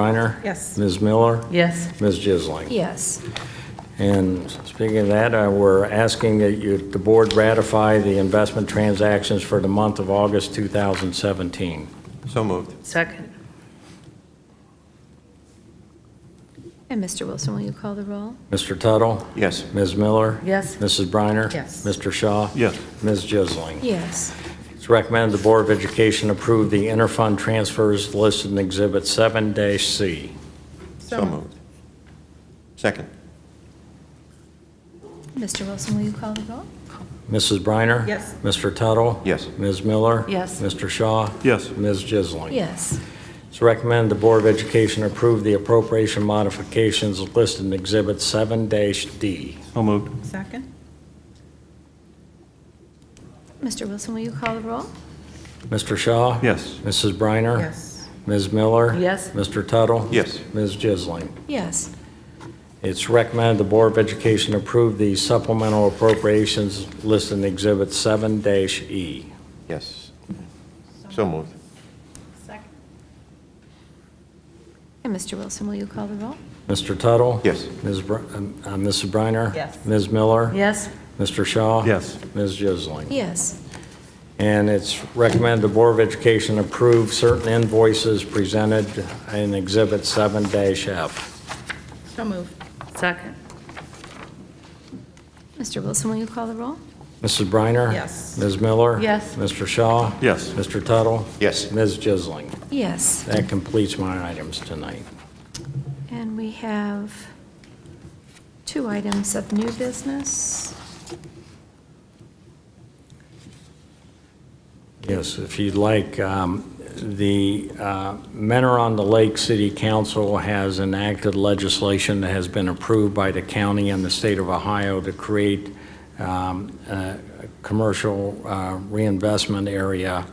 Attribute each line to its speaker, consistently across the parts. Speaker 1: Briner?
Speaker 2: Yes.
Speaker 1: Ms. Miller?
Speaker 2: Yes.
Speaker 1: Ms. Jisling?
Speaker 3: Yes.
Speaker 1: And speaking of that, uh, we're asking that you, the board ratify the investment transactions for the month of August 2017.
Speaker 4: So moved.
Speaker 2: Second.
Speaker 3: And Mr. Wilson, will you call the roll?
Speaker 1: Mr. Tuttle?
Speaker 4: Yes.
Speaker 1: Ms. Miller?
Speaker 2: Yes.
Speaker 1: Mrs. Briner?
Speaker 2: Yes.
Speaker 1: Mr. Shaw?
Speaker 4: Yes.
Speaker 1: Ms. Jisling?
Speaker 3: Yes.
Speaker 1: It's recommended the Board of Education approve the interfund transfers listed in Exhibit 7-C.
Speaker 4: So moved. Second.
Speaker 3: Mr. Wilson, will you call the roll?
Speaker 1: Mrs. Briner?
Speaker 2: Yes.
Speaker 1: Mr. Tuttle?
Speaker 4: Yes.
Speaker 1: Ms. Miller?
Speaker 2: Yes.
Speaker 1: Mr. Shaw?
Speaker 4: Yes.
Speaker 1: Ms. Jisling?
Speaker 3: Yes.
Speaker 1: It's recommended the Board of Education approve the appropriation modifications listed in Exhibit 7-D.
Speaker 4: So moved.
Speaker 2: Second?
Speaker 3: Mr. Wilson, will you call the roll?
Speaker 1: Mr. Shaw?
Speaker 4: Yes.
Speaker 1: Mrs. Briner?
Speaker 2: Yes.
Speaker 1: Ms. Miller?
Speaker 2: Yes.
Speaker 1: Mr. Tuttle?
Speaker 4: Yes.
Speaker 1: Ms. Jisling?
Speaker 3: Yes.
Speaker 1: It's recommended the Board of Education approve the supplemental appropriations listed in Exhibit E. 7-E.
Speaker 4: Yes. So moved.
Speaker 2: Second.
Speaker 3: And Mr. Wilson, will you call the roll?
Speaker 1: Mr. Tuttle?
Speaker 4: Yes.
Speaker 1: Ms. Br- um, uh, Mrs. Briner?
Speaker 2: Yes.
Speaker 1: Ms. Miller?
Speaker 2: Yes.
Speaker 1: Mr. Shaw?
Speaker 4: Yes.
Speaker 1: Ms. Jisling?
Speaker 3: Yes.
Speaker 1: And it's recommended the Board of Education approve certain invoices presented in Exhibit 7-F.
Speaker 2: So moved. Second.
Speaker 3: Mr. Wilson, will you call the roll?
Speaker 1: Mrs. Briner?
Speaker 2: Yes.
Speaker 1: Ms. Miller?
Speaker 2: Yes.
Speaker 1: Mr. Shaw?
Speaker 4: Yes.
Speaker 1: Mr. Tuttle?
Speaker 4: Yes.
Speaker 1: Ms. Jisling?
Speaker 3: Yes.
Speaker 1: That completes my items tonight.
Speaker 3: And we have two items of new business.
Speaker 1: Yes, if you'd like, um, the uh, Mentor on the Lake City Council has enacted legislation that has been approved by the county and the state of Ohio to create um, a a commercial uh, reinvestment area.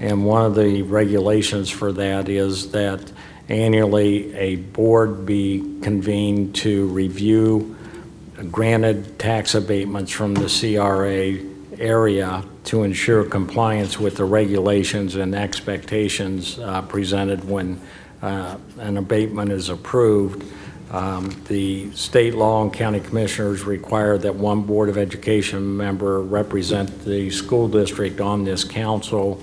Speaker 1: And one of the regulations for that is that annually, a board be convened to review granted tax abatements from the CRA area to ensure compliance with the regulations and expectations uh, presented when uh, an abatement is approved. Um, The state law and county commissioners require that one Board of Education member represent the school district on this council.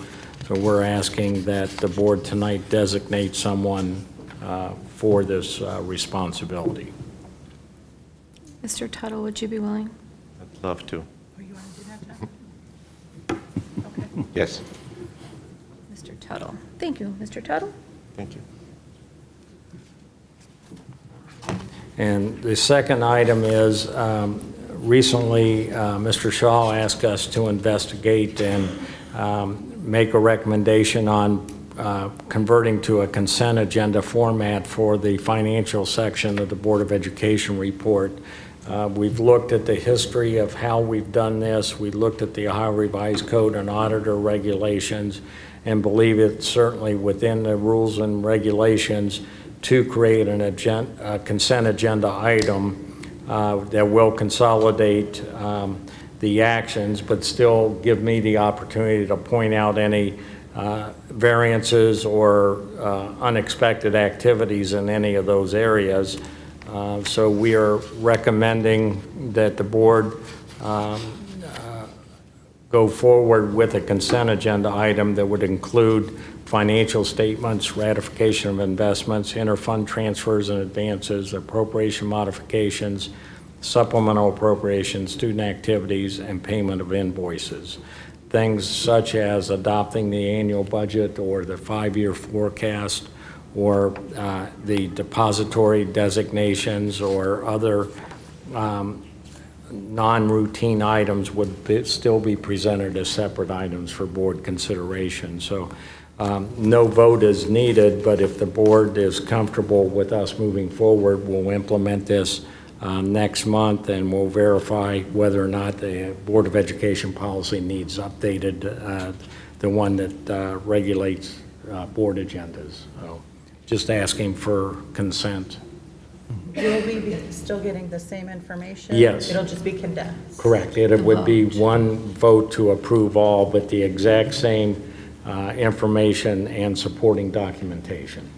Speaker 1: So we're asking that the board tonight designate someone uh, for this uh, responsibility.
Speaker 3: Mr. Tuttle, would you be willing?
Speaker 4: I'd love to.
Speaker 2: Oh, you want to do that, John?
Speaker 4: Yes.
Speaker 3: Mr. Tuttle. Thank you, Mr. Tuttle.
Speaker 4: Thank you.
Speaker 1: And the second item is, um, recently, uh, Mr. Shaw asked us to investigate and um, make a recommendation on uh, converting to a consent agenda format for the financial section of the Board of Education report. Uh, We've looked at the history of how we've done this. We looked at the Ohio Revised Code and auditor regulations and believe it's certainly within the rules and regulations to create an agen- a consent agenda item uh, that will consolidate um, the actions, but still give me the opportunity to point out any uh, variances or uh, unexpected activities in any of those areas. Uh, So we are recommending that the board um, go forward with a consent agenda item that would include financial statements, ratification of investments, interfund transfers and advances, appropriation modifications, supplemental appropriations, student activities, and payment of invoices. Things such as adopting the annual budget or the five-year forecast or uh, the depository designations or other um, non-routine items would be- still be presented as separate items for board consideration. So um, no vote is needed, but if the board is comfortable with us moving forward, we'll implement this um, next month, and we'll verify whether or not the Board of Education policy needs updated, uh, the one that uh, regulates uh, board agendas. So Just asking for consent.
Speaker 2: You'll be- be still getting the same information?
Speaker 1: Yes.
Speaker 2: It'll just be condensed?
Speaker 1: Correct. It would be one vote to approve all, but the exact same uh, information and supporting documentation.